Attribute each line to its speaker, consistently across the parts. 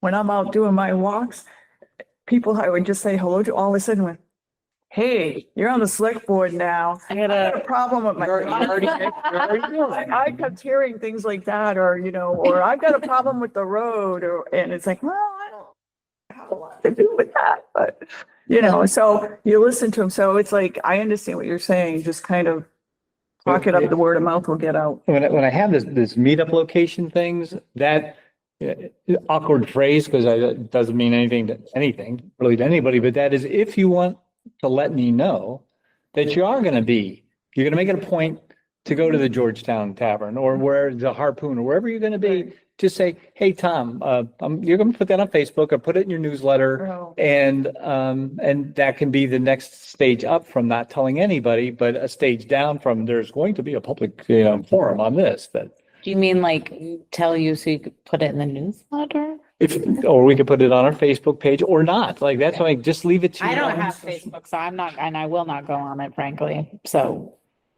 Speaker 1: when I'm out doing my walks, people I would just say hello to, all of a sudden went, hey, you're on the select board now.
Speaker 2: I
Speaker 1: I had a
Speaker 2: gotta,
Speaker 1: problem with my.
Speaker 3: You're- you're already- you're already doing it.
Speaker 1: I I kept hearing things like that, or, you know, or I've got a problem with the road, or, and it's like, well, I don't have a lot to do with that, but, you know, so you listen to them, so it's like, I understand what you're saying, just kind of talk it up, the word of mouth will get out.
Speaker 3: When I, when I have this, this meetup location things, that uh, awkward phrase, because I, it doesn't mean anything to anything, really to anybody, but that is if you want to let me know that you are going to be, you're going to make it a point to go to the Georgetown Tavern or where the Harpoon or wherever you're going to be, just say, hey, Tom, uh, um, you're going to put that on Facebook or put it in your newsletter.
Speaker 1: Oh,
Speaker 3: And, um, and that can be the next stage up from not telling anybody, but a stage down from there's going to be a public, you know, forum on this that
Speaker 2: do you mean like tell you so you could put it in the newsletter?
Speaker 3: if, or we could put it on our Facebook page or not. Like that's why just leave it to.
Speaker 2: I
Speaker 3: your
Speaker 2: don't
Speaker 3: own-
Speaker 2: have Facebook, so I'm not, and I will not go on it frankly, so.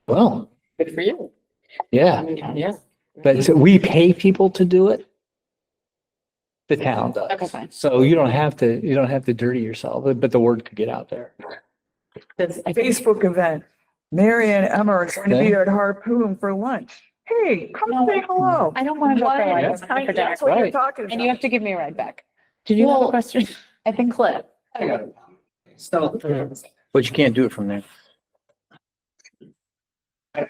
Speaker 3: Well,
Speaker 4: Good for you. I
Speaker 3: yeah,
Speaker 4: mean, yeah.
Speaker 3: but we pay people to do it. The town does.
Speaker 2: Okay, fine.
Speaker 3: So you don't have to, you don't have to dirty yourself, but- but the word could get out there.
Speaker 2: Does- I think-
Speaker 1: Facebook event, Mary and Emma are going to be
Speaker 3: Okay.
Speaker 1: at Harpoon for lunch. Hey, come say hello.
Speaker 2: I don't want to go for
Speaker 1: What?
Speaker 2: like
Speaker 1: That's kind
Speaker 2: for
Speaker 1: of-
Speaker 2: dinner.
Speaker 1: that's what you're
Speaker 3: Right.
Speaker 1: talking
Speaker 2: And
Speaker 1: about.
Speaker 2: you have to give me a ride back. Did you have a question? I think Cliff.
Speaker 4: So, um,
Speaker 3: But you can't do it from there.
Speaker 4: I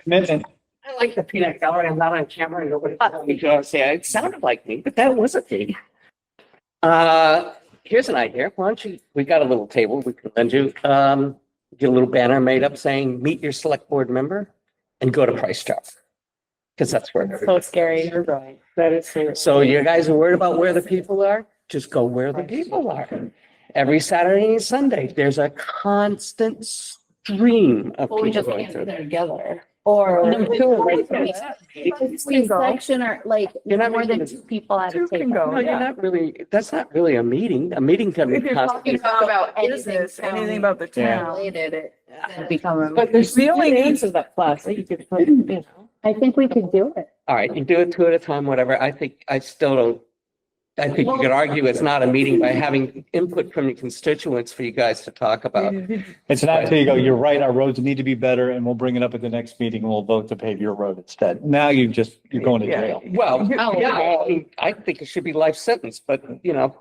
Speaker 4: like the peanut gallery. I'm not on camera. and Nobody, you know what I'm saying? It sounded like me, but that wasn't me. Uh, here's an idea. Why don't you, we got a little table we could lend you. Um, get a little banner made up saying, meet your select board member and go to Price Chopper. Because that's where. everybody-
Speaker 2: scary. You're right. That is serious.
Speaker 4: So you guys are worried about where the people are? Just go where the people are. Every Saturday and Sunday, there's a constant stream of
Speaker 2: Well, we
Speaker 4: people
Speaker 2: just
Speaker 4: going
Speaker 2: can't do
Speaker 4: through.
Speaker 2: that together.
Speaker 5: Or
Speaker 2: Number two, right?
Speaker 5: same section or like
Speaker 4: You're not
Speaker 5: more than
Speaker 4: making
Speaker 5: two people at
Speaker 1: Two
Speaker 5: a
Speaker 1: can
Speaker 5: table.
Speaker 1: go,
Speaker 4: No, you're
Speaker 1: Oh, yeah.
Speaker 4: not really, that's not really a meeting. A meeting can
Speaker 1: If
Speaker 4: be
Speaker 1: you're talking
Speaker 4: constituted.
Speaker 1: about
Speaker 5: anything
Speaker 1: business,
Speaker 5: town
Speaker 1: anything about the
Speaker 3: Yeah.
Speaker 1: town.
Speaker 5: Related, it- that'd become a-
Speaker 2: But there's
Speaker 1: The
Speaker 2: the
Speaker 1: only
Speaker 2: only answer that plus, you could put, you know.
Speaker 5: I think we could do it.
Speaker 4: All right, you do it two at a time, whatever. I think, I still don't. I think you could argue it's not a meeting by having input from your constituents for you guys to talk about.
Speaker 3: It's not until you go, you're right, our roads need to be better and we'll bring it up at the next meeting and we'll vote to pave your road instead. Now you just, you're going to
Speaker 1: Yeah.
Speaker 3: jail.
Speaker 4: Well,
Speaker 5: Oh.
Speaker 4: yeah, I mean, I think it should be life sentence, but you know,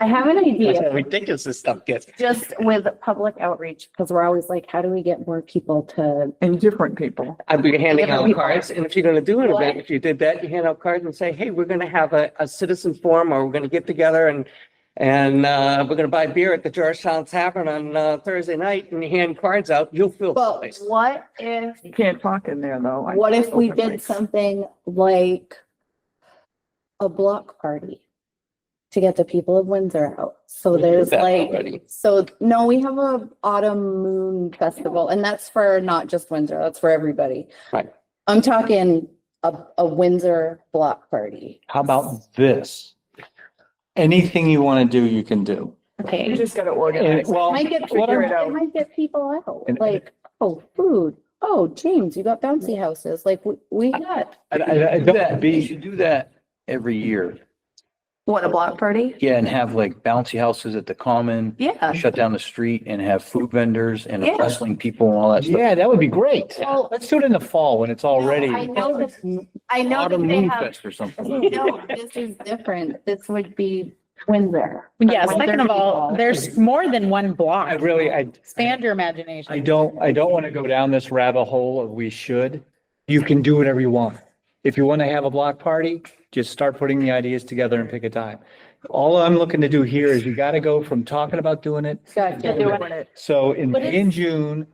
Speaker 5: I have an
Speaker 4: that's
Speaker 5: idea,
Speaker 4: how ridiculous this stuff gets.
Speaker 5: just with public outreach, because we're always like, how do we get more people to?
Speaker 1: And different people.
Speaker 4: I'd be handing
Speaker 5: Different
Speaker 4: out
Speaker 5: people.
Speaker 4: cards, and if you're gonna do an
Speaker 5: What?
Speaker 4: event, if you did that, you hand out cards and say, hey, we're gonna have a, a citizen forum, or we're gonna get together and and uh, we're gonna buy beer at the Georgetown Tavern on uh, Thursday night, and you hand cards out, you'll feel.
Speaker 5: But
Speaker 4: place.
Speaker 5: what if,
Speaker 1: You can't talk in there though. I-
Speaker 5: what if we
Speaker 1: openly.
Speaker 5: did something like a block party to get the people of Windsor out? So
Speaker 4: We did
Speaker 5: there's
Speaker 4: that
Speaker 5: like,
Speaker 4: already.
Speaker 5: So, no, we have a autumn moon festival and that's for not just Windsor, that's for everybody.
Speaker 4: Right.
Speaker 5: I'm talking a, a Windsor block party.
Speaker 3: How about this? Anything you want to do, you can do.
Speaker 1: You
Speaker 5: Okay.
Speaker 1: just gotta
Speaker 3: And
Speaker 1: organize.
Speaker 3: well,
Speaker 5: Might get,
Speaker 3: what
Speaker 5: people-
Speaker 3: I'm-
Speaker 5: it might get people out,
Speaker 3: And-
Speaker 5: like, oh, food, oh, James, you got bouncy houses, like, we, we got.
Speaker 3: I, I, I don't, be, you should do that every year.
Speaker 5: What, a block party?
Speaker 3: Yeah, and have like bouncy houses at the common,
Speaker 5: Yeah.
Speaker 3: shut down the street and have food vendors and
Speaker 5: Yeah.
Speaker 3: wrestling people and all that stuff. Yeah, that would be great.
Speaker 5: Well-
Speaker 3: Let's do it in the fall when it's already
Speaker 5: I know that, I know that
Speaker 3: autumn
Speaker 5: they
Speaker 3: moon
Speaker 5: have,
Speaker 3: fest or something.
Speaker 5: no, this is different, this would be Windsor.
Speaker 2: Yeah,
Speaker 5: Like,
Speaker 2: second of all,
Speaker 5: people.
Speaker 2: there's more than one block.
Speaker 3: I really, I,
Speaker 2: Expand your imagination.
Speaker 3: I don't, I don't want to go down this rabbit hole of we should. You can do whatever you want. If you want to have a block party, just start putting the ideas together and pick a time. All I'm looking to do here is you got to go from talking about doing it.
Speaker 5: Gotcha.
Speaker 3: So in,
Speaker 2: But it's-
Speaker 3: in June,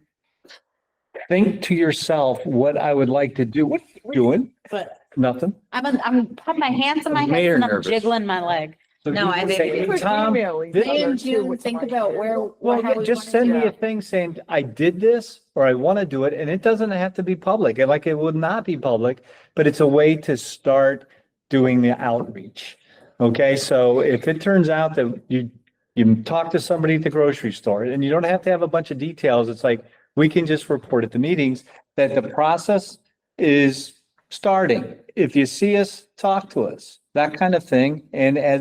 Speaker 3: think to yourself what I would like to do. What are you doing?
Speaker 2: But
Speaker 3: Nothing.
Speaker 2: I'm, I'm putting my hands in my head
Speaker 3: Mayor
Speaker 2: and I'm
Speaker 3: nervous.
Speaker 2: jiggling my leg.
Speaker 3: So
Speaker 2: No,
Speaker 3: you
Speaker 2: I
Speaker 3: can
Speaker 2: think-
Speaker 3: say, "Hey, Tom, this-
Speaker 5: In June, think about where.
Speaker 3: well,
Speaker 5: how
Speaker 3: yeah,
Speaker 5: we
Speaker 3: just
Speaker 5: wanna
Speaker 3: send
Speaker 5: do
Speaker 3: me a
Speaker 5: it.
Speaker 3: thing saying I did this or I want to do it. And it doesn't have to be public. And like it would not be public, but it's a way to start doing the outreach. Okay, so if it turns out that you, you talk to somebody at the grocery store and you don't have to have a bunch of details, it's like, we can just report at the meetings that the process is starting. If you see us, talk to us, that kind of thing. And as